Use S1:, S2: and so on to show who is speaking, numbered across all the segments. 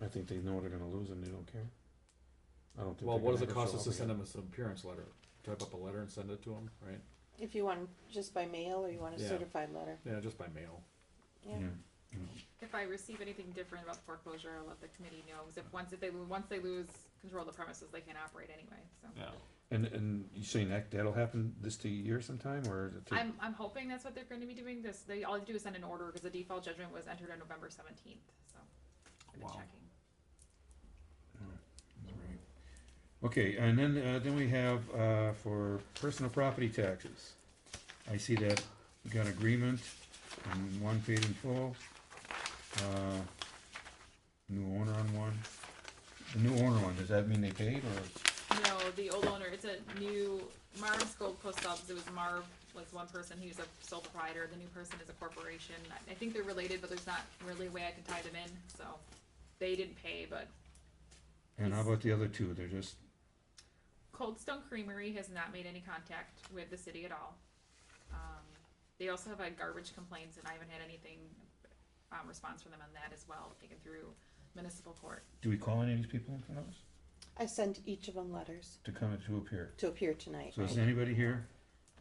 S1: I think they know they're gonna lose and they don't care. I don't think.
S2: Well,
S1: they're
S2: what
S1: gonna
S2: does it
S1: ever
S2: cost
S1: show
S2: us
S1: up
S2: to send
S1: again.
S2: them an appearance letter? Type up a letter and send it to them, right?
S3: If you want just by mail or you want a
S2: Yeah.
S3: certified letter.
S2: Yeah, just by mail.
S3: Yeah.
S1: Yeah.
S4: If I receive anything different about the foreclosure, I'll let the committee know, because if, once, if they, once they lose control of the premises, they can't operate anyway, so.
S2: Yeah.
S1: And and you saying that that'll happen this t- year sometime or? is it too-
S4: I'm, I'm hoping that's what they're gonna be doing, this, they, all they do is send an order, because the default judgment was entered on November seventeenth, so. I've been
S2: Wow.
S4: checking.
S1: Alright. Okay, and then, uh, then we have, uh, for personal property taxes. I see that we got agreement and one paid in full. Uh, New owner on one. The new owner one, does that mean they paid or?
S4: No, the old owner, it's a new, Marv's Gold Post Office, it was Marv was one person, he was a sole proprietor, the new person is a corporation. I- I think they're related, but there's not really a way I can tie them in, so they didn't pay, but
S1: And how about the other two? They're just,
S4: Cold Stone Creamery has not made any contact with the city at all. Um, they also have had garbage complaints, and I haven't had anything, um, response from them on that as well, taken through municipal court.
S1: do we call any of these people in front of us
S3: I sent each of them letters
S1: to come and to appear?
S3: to appear tonight,
S1: So is
S3: right?
S1: anybody here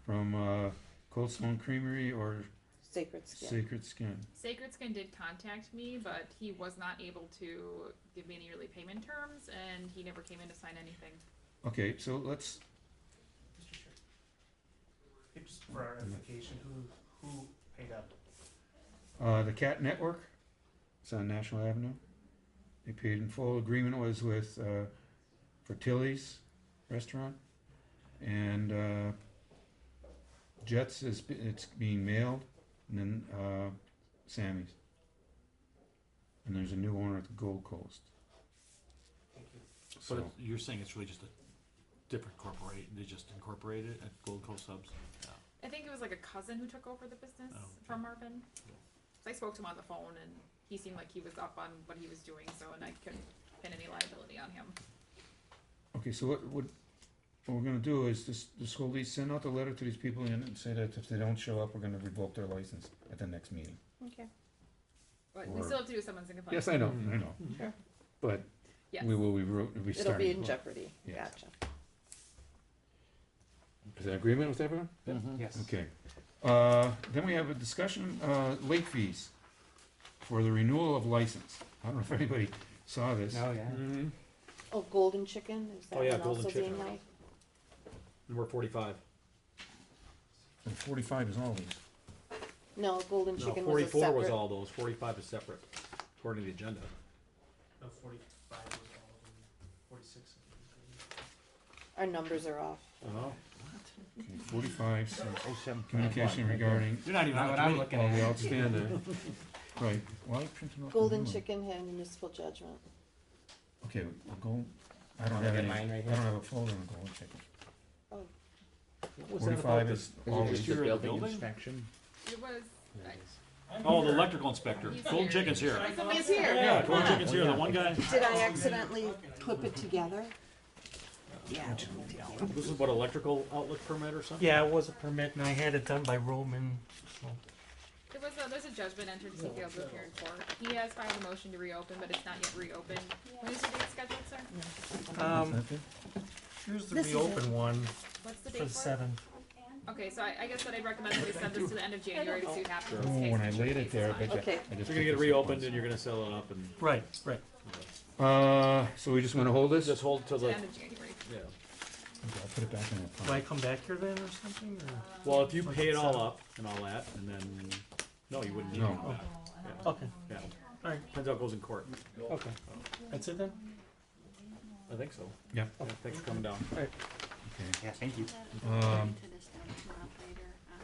S1: from, uh, Cold Stone Creamery or
S3: Sacred Skin.
S1: Sacred Skin?
S4: Sacred Skin did contact me, but he was not able to give me any yearly payment terms, and he never came in to sign anything.
S1: Okay, so let's,
S5: Mr. Chair. Hey, Just for our edification, who, who paid up?
S1: Uh, the Cat Network, it's on National Avenue. They paid in full. Agreement was with uh, Fertilli's Restaurant. And uh, Jets is it's being mailed, and then uh, Sammy's. And there's a new owner at the Gold Coast.
S5: Thank you.
S6: But
S1: So
S6: it's- you're saying it's really just a different corporate, they just incorporated it at Gold Coast Subs? Yeah.
S4: I think it was like a cousin who took over the business
S6: Oh.
S4: from Marvin. So I spoke to him on the phone, and he seemed like he was up on what he was doing, so, and I couldn't pin any liability on him.
S1: okay, so what what, what we're gonna do is this this whole lease send out the letter to these people and and say that if they don't show up, we're gonna revoke their license at the next meeting.
S3: Okay.
S4: But we
S1: Or-
S4: still have to do someone's in complaint.
S1: Yes, I know, Mm-hmm. I know.
S3: Sure.
S1: But
S4: Yes.
S1: we will revert,
S3: It'll
S1: restart.
S3: be in
S1: Is
S3: jeopardy.
S1: Yes.
S3: Gotcha.
S1: there agreement with everyone?
S7: Mm-hmm.
S5: Yes.
S1: Okay. Uh, Then we have a discussion, uh, late fees for the renewal of license. I don't know if anybody saw this.
S5: yeah.
S2: Mm-hmm.
S3: Oh, Golden Chicken, is that
S2: Oh, yeah,
S3: one
S2: Golden
S3: also being
S2: Chicken.
S3: like?
S2: Number forty-five.
S1: And Forty-five is all these.
S3: No, Golden
S2: No,
S3: Chicken was a
S2: forty-four was
S3: separate.
S2: all those, forty-five is separate, according to the agenda.
S5: No, forty-five was all of them, forty-six. I think, maybe.
S3: Our numbers are off.
S2: Oh.
S1: Okay, Forty-five, so communication regarding.
S6: You're not even on the committee.
S1: All the outstanding. Right. Why are you printing off the
S3: Golden
S1: new one?
S3: Chicken had a municipal judgment.
S1: Okay, we'll go, I don't have any, I don't have a folder on golden chicken.
S3: Oh,
S1: Forty-five
S2: Oh,
S1: is all
S6: just
S1: these.
S6: your building?
S4: It was. I-
S6: Oh, the electrical inspector,
S4: He's
S6: Golden
S4: here.
S6: Chicken's here.
S3: somebody is here.
S6: Yeah, Golden Chicken's here, the one guy.
S3: Did I accidentally clip it together? Yeah.
S2: This is what, electrical outlet permit or something?
S7: Yeah, it was a permit and I had it done by Roman.
S4: There was a, there's a judgment entered to appeal to appear in court. He has filed a motion to reopen, but it's not yet reopened. When is the date scheduled, sir?
S7: Um,
S1: Nothing?
S7: here's the
S3: This is it.
S7: reopen one
S4: What's the
S7: for
S4: date
S7: the
S4: for it?
S7: seven.
S4: Okay, so I, I guess what I'd recommend is we send this to the end of January to see what happens.
S1: Oh,
S4: with this case,
S1: when I
S4: which
S1: laid
S4: case
S1: it
S4: is
S1: there, I
S4: fine.
S1: bet you.
S3: Okay.
S1: I just
S2: So you're gonna get
S1: put
S2: it
S1: this up
S2: reopened
S1: once.
S2: and you're gonna sell it up and,
S7: Right, right.
S1: Uh, so we just wanna hold this?
S2: just hold till
S4: To the
S2: the,
S4: end of January.
S2: yeah.
S1: Okay, I'll put it back in that
S7: Do I
S1: pocket.
S7: come back here then or something or?
S2: Well, if you
S7: Like
S2: pay it all
S7: seven.
S2: up and all that, and then, no, you wouldn't need it
S1: No.
S2: back.
S7: Oh, Okay,
S2: Yeah,
S7: alright,
S2: depends how it goes in court.
S7: okay. That's it then?
S2: I think so.
S1: Yeah.
S2: Yeah, Thanks for coming down.
S1: Okay.
S6: Yeah, thank you.
S1: Um,
S8: to this down to an operator on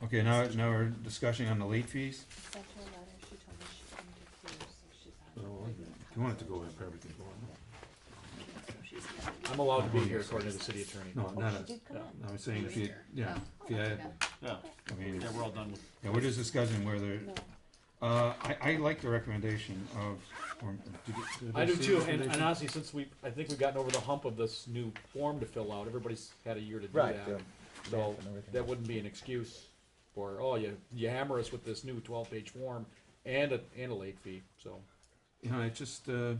S8: the
S1: Okay, now, now we're discussing on the late fees.
S8: sent her a letter, she told me she couldn't appear, so she's on.
S1: If you want Oh, it to go in, probably can go in.
S8: So she's not-
S2: I'm allowed to be here according to the city attorney.
S1: No, not
S8: Oh,
S1: us.
S8: she did come
S2: yeah.
S8: in.
S1: I was saying if you, yeah, if you had,
S6: Yeah,
S1: I mean,
S6: yeah, we're all done with,
S1: yeah, we're just discussing whether,
S3: No.
S1: uh, I, I like the recommendation of, or, did you- did
S2: I do
S1: see
S2: too,
S1: the
S2: and, and
S1: recommendation?
S2: honestly, since we, I think we've gotten over the hump of this new form to fill out, everybody's had a year to do that. So, that wouldn't be an excuse for, oh, you, you hammer us with this new twelve-page form and a, and a late fee, so.
S1: You know, it just, uh,